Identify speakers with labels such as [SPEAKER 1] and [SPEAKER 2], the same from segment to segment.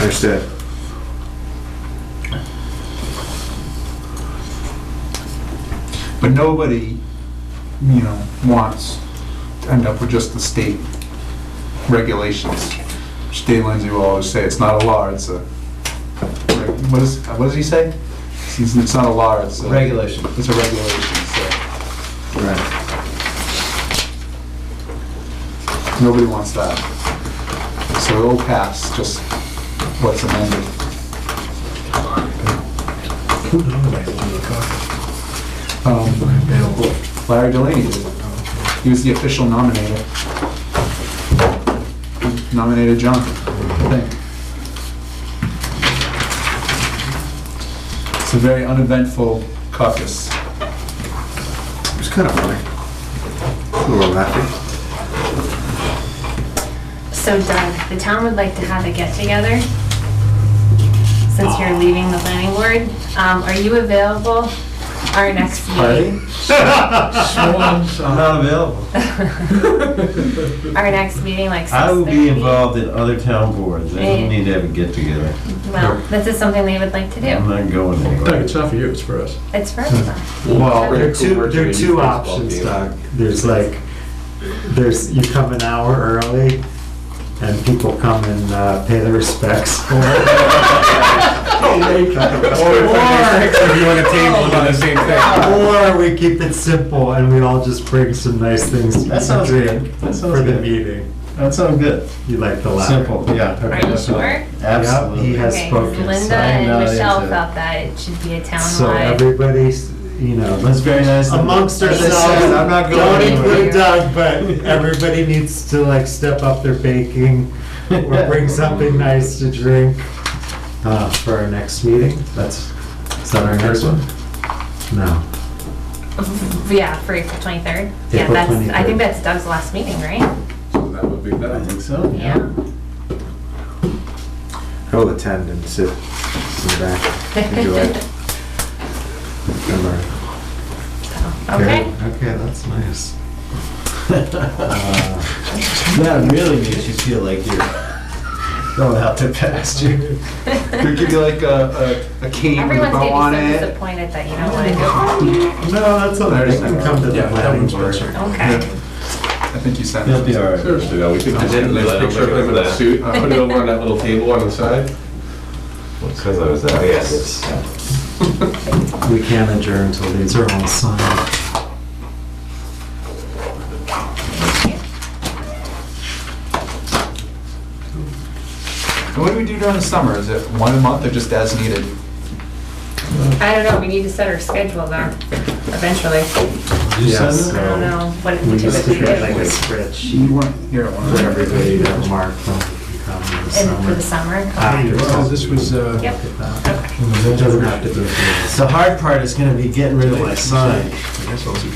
[SPEAKER 1] Understood.
[SPEAKER 2] But nobody, you know, wants to end up with just the state regulations. Dave Lindsay will always say, it's not a law, it's a, what is, what does he say? It's it's not a law, it's a.
[SPEAKER 3] Regulation.
[SPEAKER 2] It's a regulation, so
[SPEAKER 1] Right.
[SPEAKER 2] nobody wants that. So it'll pass, just what's amended. Um, Larry Delaney did. He was the official nominator. He Nominated John, I think. It's a very uneventful caucus.
[SPEAKER 1] It was kind of funny. A little laughing.
[SPEAKER 4] So Doug, the town would like to have a get-together, since you're leaving the planning board. Um, Are you available our next meeting?
[SPEAKER 3] I'm not available.
[SPEAKER 4] Our next meeting, like 6:30?
[SPEAKER 3] I will be involved in other town boards. I
[SPEAKER 4] Yeah.
[SPEAKER 3] don't need to have a get together.
[SPEAKER 4] Well, this is something they would like to
[SPEAKER 3] I'm
[SPEAKER 4] do.
[SPEAKER 3] not going
[SPEAKER 5] Doug,
[SPEAKER 3] anywhere.
[SPEAKER 5] it's not for you, it's for us.
[SPEAKER 4] It's for everyone.
[SPEAKER 6] Well, there are
[SPEAKER 4] Pretty
[SPEAKER 6] two, there are two options, Doug. There's like, there's, you come an hour early and people come and uh, pay their respects. Or Or we keep it simple and we all just bring some nice things
[SPEAKER 3] That
[SPEAKER 6] to
[SPEAKER 3] sounds
[SPEAKER 6] drink
[SPEAKER 3] good. That sounds
[SPEAKER 6] for the
[SPEAKER 3] good.
[SPEAKER 6] meeting.
[SPEAKER 3] That sounds good.
[SPEAKER 6] You like the latter.
[SPEAKER 3] Simple, yeah.
[SPEAKER 4] Are you sure?
[SPEAKER 3] Absolutely.
[SPEAKER 6] he has-
[SPEAKER 4] Okay,
[SPEAKER 6] spoken, so
[SPEAKER 4] Linda
[SPEAKER 3] I'm not
[SPEAKER 4] and Michelle
[SPEAKER 3] into it.
[SPEAKER 4] felt that it should be a
[SPEAKER 6] So
[SPEAKER 4] townwide.
[SPEAKER 6] everybody's, you know,
[SPEAKER 3] That's very nice. of them.
[SPEAKER 6] amongst
[SPEAKER 3] As I
[SPEAKER 6] ourselves.
[SPEAKER 3] said, I'm not
[SPEAKER 6] Don't
[SPEAKER 3] going
[SPEAKER 6] include
[SPEAKER 3] anywhere.
[SPEAKER 6] Doug, but everybody needs to like step up their baking or bring something nice to drink uh, for our next meeting. That's is that our next one? No.
[SPEAKER 4] Yeah, for April 23rd. Yeah,
[SPEAKER 6] April
[SPEAKER 4] that's, I
[SPEAKER 6] 23rd.
[SPEAKER 4] think that's Doug's last meeting, right?
[SPEAKER 5] That would be
[SPEAKER 3] I
[SPEAKER 5] better.
[SPEAKER 3] think so.
[SPEAKER 4] Yeah.
[SPEAKER 1] I will attend and sit in the back. Enjoy it. Remember.
[SPEAKER 4] Okay.
[SPEAKER 6] Okay, that's nice.
[SPEAKER 3] That really makes you feel like you're going out to pasture.
[SPEAKER 2] They give you like a, a a cane with a
[SPEAKER 4] Everyone's
[SPEAKER 2] bow on
[SPEAKER 4] gonna be so
[SPEAKER 2] it.
[SPEAKER 4] disappointed that you don't wanna
[SPEAKER 6] No, that's all right. You can come to the
[SPEAKER 5] Yeah, that
[SPEAKER 6] planning
[SPEAKER 5] one's
[SPEAKER 6] board.
[SPEAKER 5] better.
[SPEAKER 4] go. Okay.
[SPEAKER 2] I think you sent it.
[SPEAKER 3] You'll be all right.
[SPEAKER 7] Seriously, though, we could just get a nice picture of him in a suit, and put it over on that little table on the side. Because I was there, yes.
[SPEAKER 6] We can't adjourn until these are all signed.
[SPEAKER 2] And What do we do during the summer? Is it one a month or just as needed?
[SPEAKER 4] I don't know, we need to set our schedule though, eventually.
[SPEAKER 6] Yeah,
[SPEAKER 3] send it?
[SPEAKER 6] so
[SPEAKER 4] I don't know what it
[SPEAKER 6] We
[SPEAKER 4] would
[SPEAKER 6] used to
[SPEAKER 4] typically
[SPEAKER 6] get like a
[SPEAKER 4] do.
[SPEAKER 6] spreadsheet
[SPEAKER 2] You weren't here at one of
[SPEAKER 6] for
[SPEAKER 2] them.
[SPEAKER 6] everybody to mark when we can come in the
[SPEAKER 4] And for the
[SPEAKER 6] summer.
[SPEAKER 4] summer?
[SPEAKER 6] After
[SPEAKER 5] Well, this was, uh,
[SPEAKER 4] Yep.
[SPEAKER 6] It doesn't have to be. for
[SPEAKER 3] The hard part is gonna be getting rid of my sign.
[SPEAKER 5] I guess I'll see.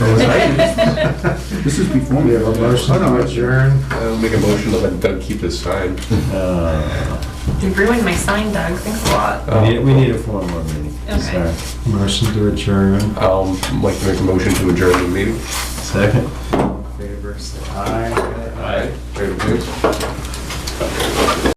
[SPEAKER 2] This is before
[SPEAKER 6] this. We have a motion
[SPEAKER 2] Oh, no,
[SPEAKER 6] to
[SPEAKER 2] it's your.
[SPEAKER 6] adjourn.
[SPEAKER 7] I'll make a motion to let Doug keep his sign.
[SPEAKER 3] Uh,
[SPEAKER 4] You ruined my sign, Doug, thanks a lot.
[SPEAKER 3] We
[SPEAKER 7] Um,
[SPEAKER 3] need- we need a four more meeting.
[SPEAKER 4] Okay.
[SPEAKER 3] Sorry.
[SPEAKER 6] Motion to adjourn.
[SPEAKER 7] I'll like to make a motion to adjourn the meeting.
[SPEAKER 3] Second.
[SPEAKER 6] Favor, say aye.
[SPEAKER 7] Aye. Ready to do?